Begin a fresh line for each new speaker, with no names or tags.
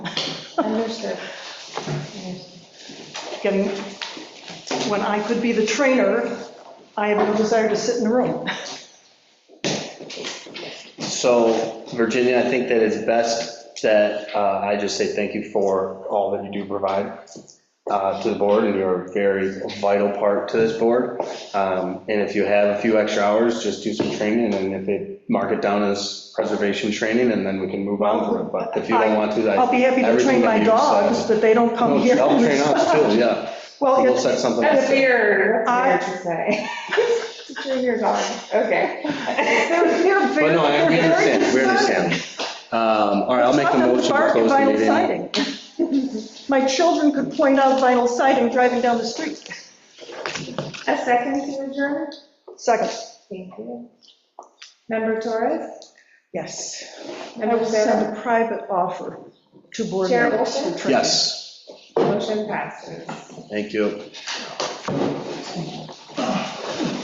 understood. Getting, when I could be the trainer, I have no desire to sit in the room.
So Virginia, I think that it's best that uh, I just say thank you for all that you do provide uh, to the board, and you're a very vital part to this board. Um, And if you have a few extra hours, just do some training, and if it, mark it down as preservation training, and then we can move on from it. But if you don't want to, I.
I'll be happy to train
everything that
my
you said-
dogs, but they don't come
No,
here.
Help train us too, yeah.
Well,
We'll
it's,
set something.
That's
up.
weird,
I-
that's weird to say. Train your dog, okay.
they're, they're very,
But no, I-
they're
we
very
understand, we
exciting.
understand. Um, All right, I'll make a
Taught them to
motion to
bark at
close the
vinyl
meeting.
siding. My children could point out vinyl siding driving down the street.
A second to adjourn?
Second,
Thank you. Member Torres?
yes. I
Member
will
Sarah?
send a private offer to board
Chair
members. for
Olson?
training.
Yes,
Motion passes.
thank you.